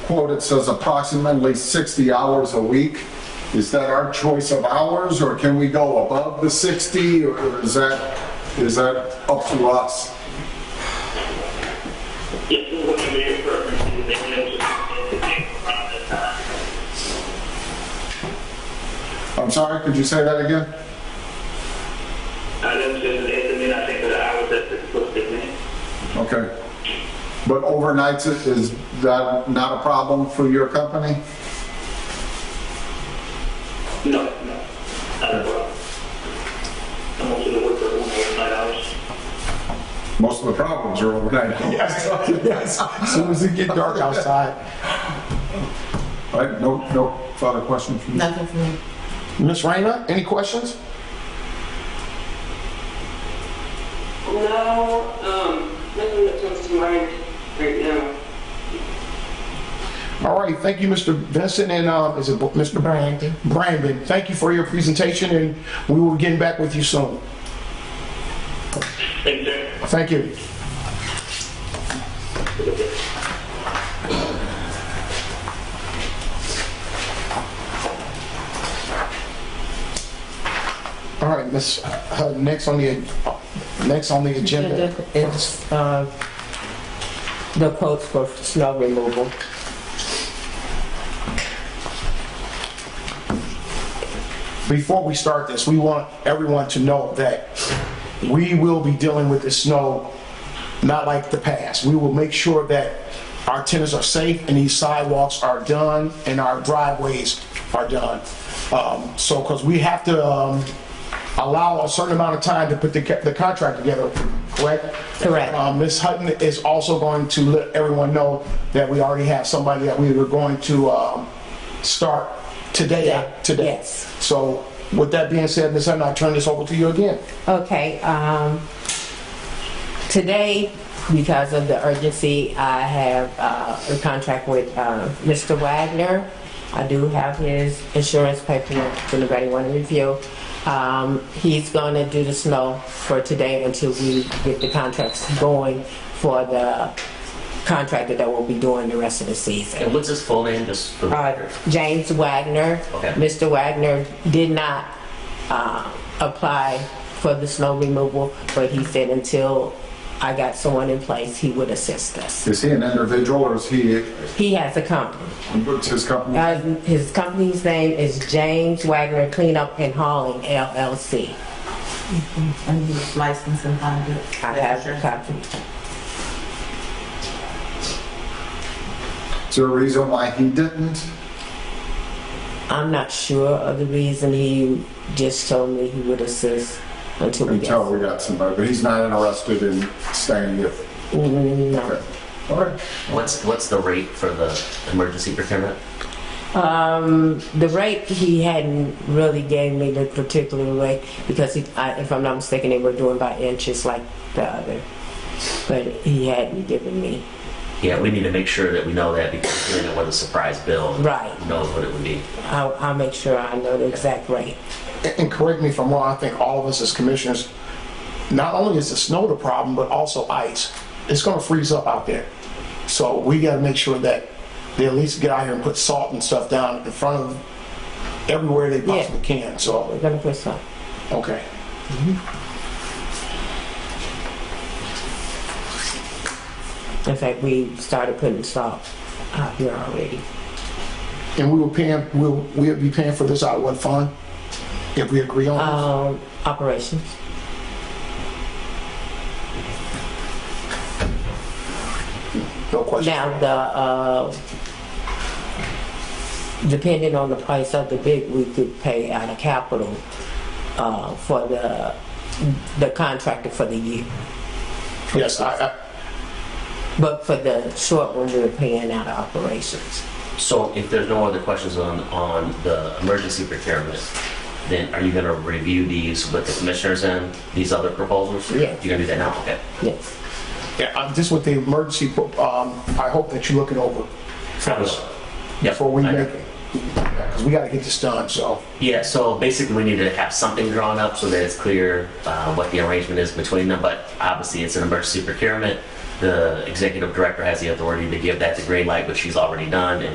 quote, it says approximately 60 hours a week. Is that our choice of hours, or can we go above the 60, or is that, is that up to us? This is what the mayor purpose is, they know the paper process. I'm sorry, could you say that again? I don't just estimate, I think, for the hours that's explicit, man. Okay. But overnights, i- is that not a problem for your company? No, no, not a problem. I'm also the worker, one of my hours. Most of the problems are overnight. Yes, yes. As soon as it get dark outside. All right, no, no further question from you? Nothing for me. Miss Raina, any questions? No, um, nothing that comes to mind right now. All right, thank you, Mr. Vincent, and, um, is it Bo- Mr. Brandon. Brandon, thank you for your presentation, and we will get back with you soon. Thanks, sir. Thank you. All right, Miss, uh, next on the, next on the agenda. It's, uh, the quotes for snow removal. Before we start this, we want everyone to know that we will be dealing with the snow not like the past. We will make sure that our tenants are safe and these sidewalks are done and our driveways are done. Um, so, because we have to, um, allow a certain amount of time to put the, ca- the contract together, correct? Correct. Um, Ms. Hutton is also going to let everyone know that we already have somebody that we were going to, um, start today, today. Yes. So with that being said, Ms. Hutton, I turn this over to you again. Okay, um, today, because of the urgency, I have, uh, a contract with, uh, Mr. Wagner. I do have his insurance paperwork, if anybody want to review. Um, he's gonna do the snow for today until we get the contracts going for the contractor that will be doing the rest of the season. And what's his full name, just for the Uh, record? James Wagner. Okay. Mr. Wagner did not uh, apply for the snow removal, but he said until I got someone in place, he would assist us. Is he an individual, or is he, He has a company. what's his company? Uh, His company's name is James Wagner Cleanup and Hauling LLC. and his license and conduct. I have a copy. Is there a reason why he didn't? I'm not sure of the reason. He just told me he would assist until we Until get. we got somebody, but he's not interested in staying with. Mm, no. Okay. All right. What's, what's the rate for the emergency procurement? Um, the rate he hadn't really gave me the particular rate because he, I, if I'm not mistaken, they were doing by inches like the other. But he hadn't given me Yeah, we need to make sure that we know that because doing it with a surprise bill. Right. who Knows what it would be. I'll, I'll make sure I know the exact rate. And correct me if I'm wrong, I think all of us as commissioners, not only is the snow the problem, but also ice. It's gonna freeze up out there. So we gotta make sure that they at least get out here and put salt and stuff down in front of everywhere they possibly can, We're so, gonna put some. okay. In fact, we started putting salt out here already. And we were paying, we'll, we'll be paying for this out of what fund? If we agree on Um, operations. this, no question. Now, the, uh, depending on the price of the bid, we could pay out of capital uh, for the, the contractor for the year. Yes, I, I, But for the short one, we're paying out of operations. So if there's no other questions on, on the emergency procurement, then are you gonna review these with the commissioners and these other proposals? Yeah. You're gonna do that now? Okay. Yes. yeah, uh, I'm just with the emergency, pro- um, I hope that you look it over Yep, before we I- make, because we gotta get this done, so. Yeah, so basically we need to have something drawn up so that it's clear uh, what the arrangement is between them, but obviously it's an emergency procurement. the executive director has the authority to give that the green light, which she's already done, and